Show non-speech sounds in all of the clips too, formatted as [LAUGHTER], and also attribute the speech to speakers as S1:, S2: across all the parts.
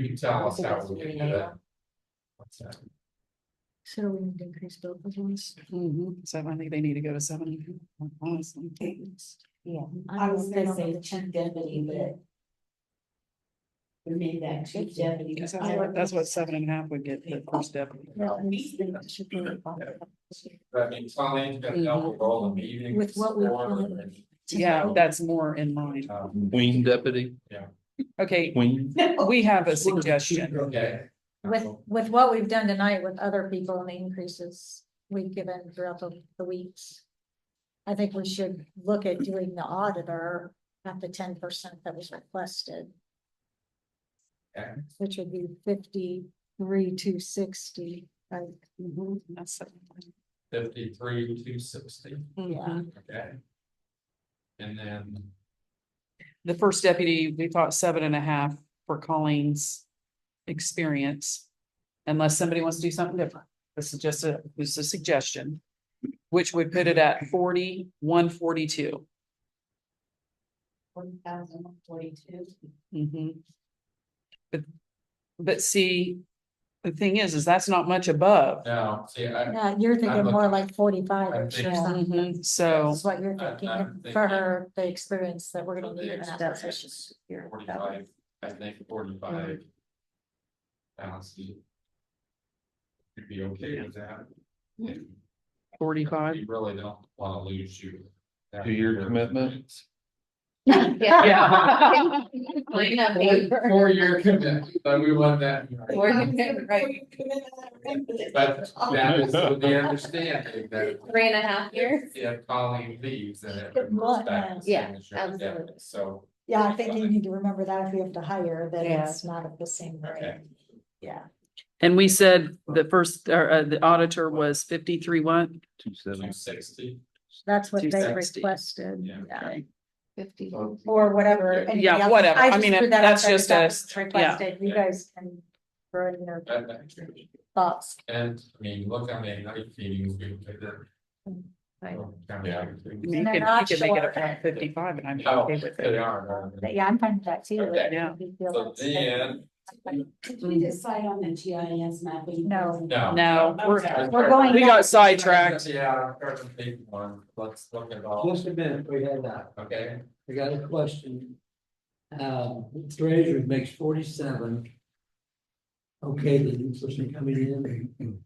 S1: You can tell us how we can do that. What's that?
S2: So we need to increase both of those.
S3: Mhm, so I think they need to go to seventy, honestly.
S4: Yeah,
S2: I
S4: I
S2: was
S4: was
S2: gonna
S4: gonna
S2: say
S4: say chief deputy, but. We made that chief deputy.
S3: Because that's what- that's what seven and a half would get the first deputy.
S4: [LAUGHS]
S1: That means Colleen's gonna double roll the meeting.
S2: With what we want.
S3: Yeah, that's more in line.
S1: Um,
S5: Queen deputy,
S3: Okay,
S5: queen.
S3: we have a suggestion.
S1: Okay.
S2: With, with what we've done tonight with other people and the increases we've given throughout the, the weeks. I think we should look at doing the auditor at the ten percent that was requested,
S1: Okay.
S2: which would be fifty-three, two sixty.
S3: Mhm, that's seven.
S1: Fifty-three, two sixty,
S3: Mhm.
S1: okay. And then,
S3: The first deputy, we thought seven and a half for Colleen's experience. Unless somebody wants to do something different. This is just a, this is a suggestion. Which would put it at forty, one forty-two.
S4: One thousand forty-two.
S3: Mhm. But, but see, the thing is, is that's not much above.
S1: now, see, I,
S2: Uh,
S1: Mm-hmm. I'm
S2: you're thinking
S1: looking-
S2: more like forty-five
S1: I'm
S2: or
S1: thinking-
S2: something.
S3: Mhm, So,
S2: That's what
S1: I'm-
S2: you're
S1: I'm
S2: thinking for
S1: thinking-
S2: her, the experience that we're gonna need in that [LAUGHS] position.
S4: [LAUGHS]
S1: forty-five, I think forty-five. Thousand. You'd be okay with that.
S3: forty-five,
S1: You really don't wanna lose you.
S5: Two-year commitment?
S3: [LAUGHS]
S6: [LAUGHS]
S3: yeah.
S1: Four-year commitment, but we want that.
S4: Right.
S1: But that is with the understanding that
S6: Three and a half years.
S1: if Colleen leaves, then it.
S2: Good
S1: goes
S2: luck,
S1: back to
S6: yeah.
S1: signature again.
S6: Yeah, absolutely.
S1: So,
S2: Yeah, I think you need to remember that if we have to hire, that
S4: Yeah.
S2: it's not at the same rate.
S1: Okay.
S2: Yeah,
S3: [LAUGHS] And we said the first, or, uh, the auditor was fifty-three one.
S5: Two
S1: two
S5: seven.
S1: sixty,
S2: that's what they
S3: 260.
S2: requested.
S1: Yeah.
S4: Fifty.
S2: Or whatever. any
S3: Yeah,
S2: of the others.
S3: whatever. I
S2: just
S3: mean,
S2: threw
S3: it-
S2: that out
S3: that's
S2: there because
S3: just
S2: that
S3: us.
S2: was requested. You guys can throw it in your
S1: that, that's true.
S2: thoughts.
S1: And, I mean, look, I mean, I meetings we did that.
S2: Right.
S1: Yeah.
S3: You can,
S2: And they're
S3: you
S2: not
S3: can make it
S2: short.
S3: around fifty-five and I'm
S1: Oh,
S3: okay with
S1: they
S3: it.
S1: are.
S2: But yeah, I'm fine with that too.
S1: Okay.
S3: Yeah.
S2: If you feel
S1: So
S2: that's-
S1: then,
S4: Did we decide on the GIS mapping?
S2: No.
S1: no.
S3: No, we're,
S2: We're going
S3: we
S2: down.
S3: got sidetracked.
S1: Yeah, I'm trying to think one, let's look at all,
S7: Just a minute, we had that,
S1: okay,
S7: I got a question. Uh, treasurer makes forty-seven. Okay, the new person coming in.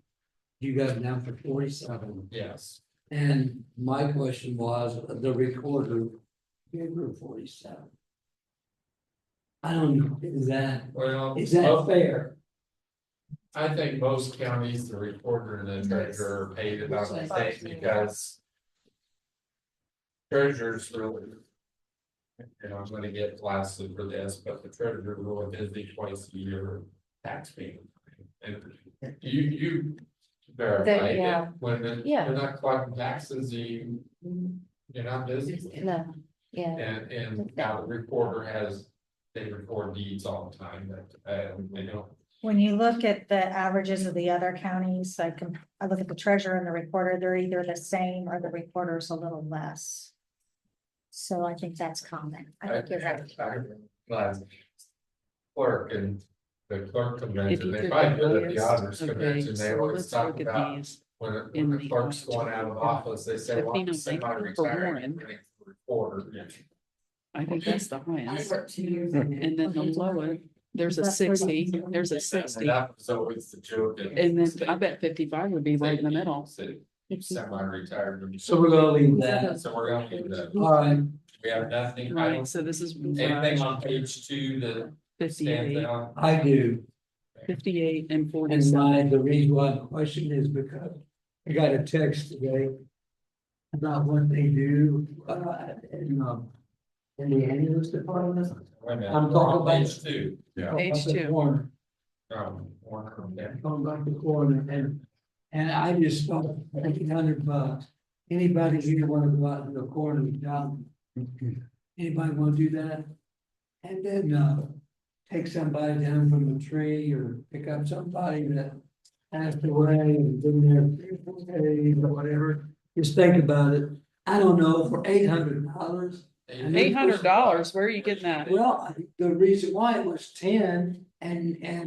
S7: You got it now for forty-seven,
S1: yes,
S7: and my question was, the recorder gave her forty-seven. I don't know, is that,
S1: well.
S7: is
S1: most-
S7: that fair?
S1: I think most counties, the recorder and the treasurer are paid about the same because. Treasurer's really. And I'm gonna get blasted for this, but the treasurer really busy twice a year tax payment. And you, you verify
S6: That-
S1: it
S6: yeah.
S1: when the-
S6: Yeah. Mm-hmm.
S1: you're not collecting taxes, you, you're not busy.
S6: No, yeah.
S1: And, and now the recorder has, they record deeds all the time that, uh, they don't
S2: When you look at the averages of the other counties, I can, I look at the treasurer and the recorder, they're either the same or the recorder's a little less. So I think that's common. I think you're right.
S1: Last Clerk and the clerk
S3: If you
S1: convention, they
S3: could
S1: probably do it at
S3: notice,
S1: the auditors
S3: okay,
S1: convention, they
S3: so
S1: always
S3: let's
S1: talk
S3: look at
S1: about.
S3: these.
S1: When, it-
S3: in
S1: when the
S3: the
S1: clerk's
S3: audit
S1: going out of
S3: report.
S1: office, they say,
S3: If
S1: well,
S3: you
S1: I'm
S3: don't think
S1: semi
S3: for
S1: retired.
S3: Warren.
S1: Reporter.
S3: I think that's the
S4: I
S3: highest.
S4: worked two years. in
S3: And then the lowest, there's a
S2: That's
S3: sixty,
S2: 32.
S3: there's a sixty,
S1: That's always the joke. in
S3: and then
S1: state-
S3: I bet fifty-five would be right in the
S1: state
S3: middle.
S1: city, Semi retired.
S7: So we're gonna leave that,
S1: So we're gonna leave that.
S7: all right,
S1: We have nothing, I
S3: Right,
S1: don't,
S3: so this is.
S1: anything on page two that stands
S3: 58,
S1: out.
S7: I do.
S3: 58 and
S7: And
S3: forty-seven.
S7: my, the reason why the question is because I got a text today about what they do, uh, in, um, in the ambulance department.
S1: Wait a minute,
S7: I'm talking
S1: we're on
S7: about-
S1: Page two. Yeah.
S3: Page
S7: Up at
S3: two.
S7: Warren,
S1: Um, Warner, yeah.
S7: Going back to corner and, and I just thought, eight hundred bucks. uh, Anybody here wanna go out to the corner and down? Anybody wanna do that? And then, uh, take somebody down from the tree or pick up somebody that passed away and been there three, or four days or whatever. Just think about it. I don't know, for eight hundred dollars,
S3: Eight hundred dollars, where are you getting that?
S7: well, I- the reason why it was ten, and, and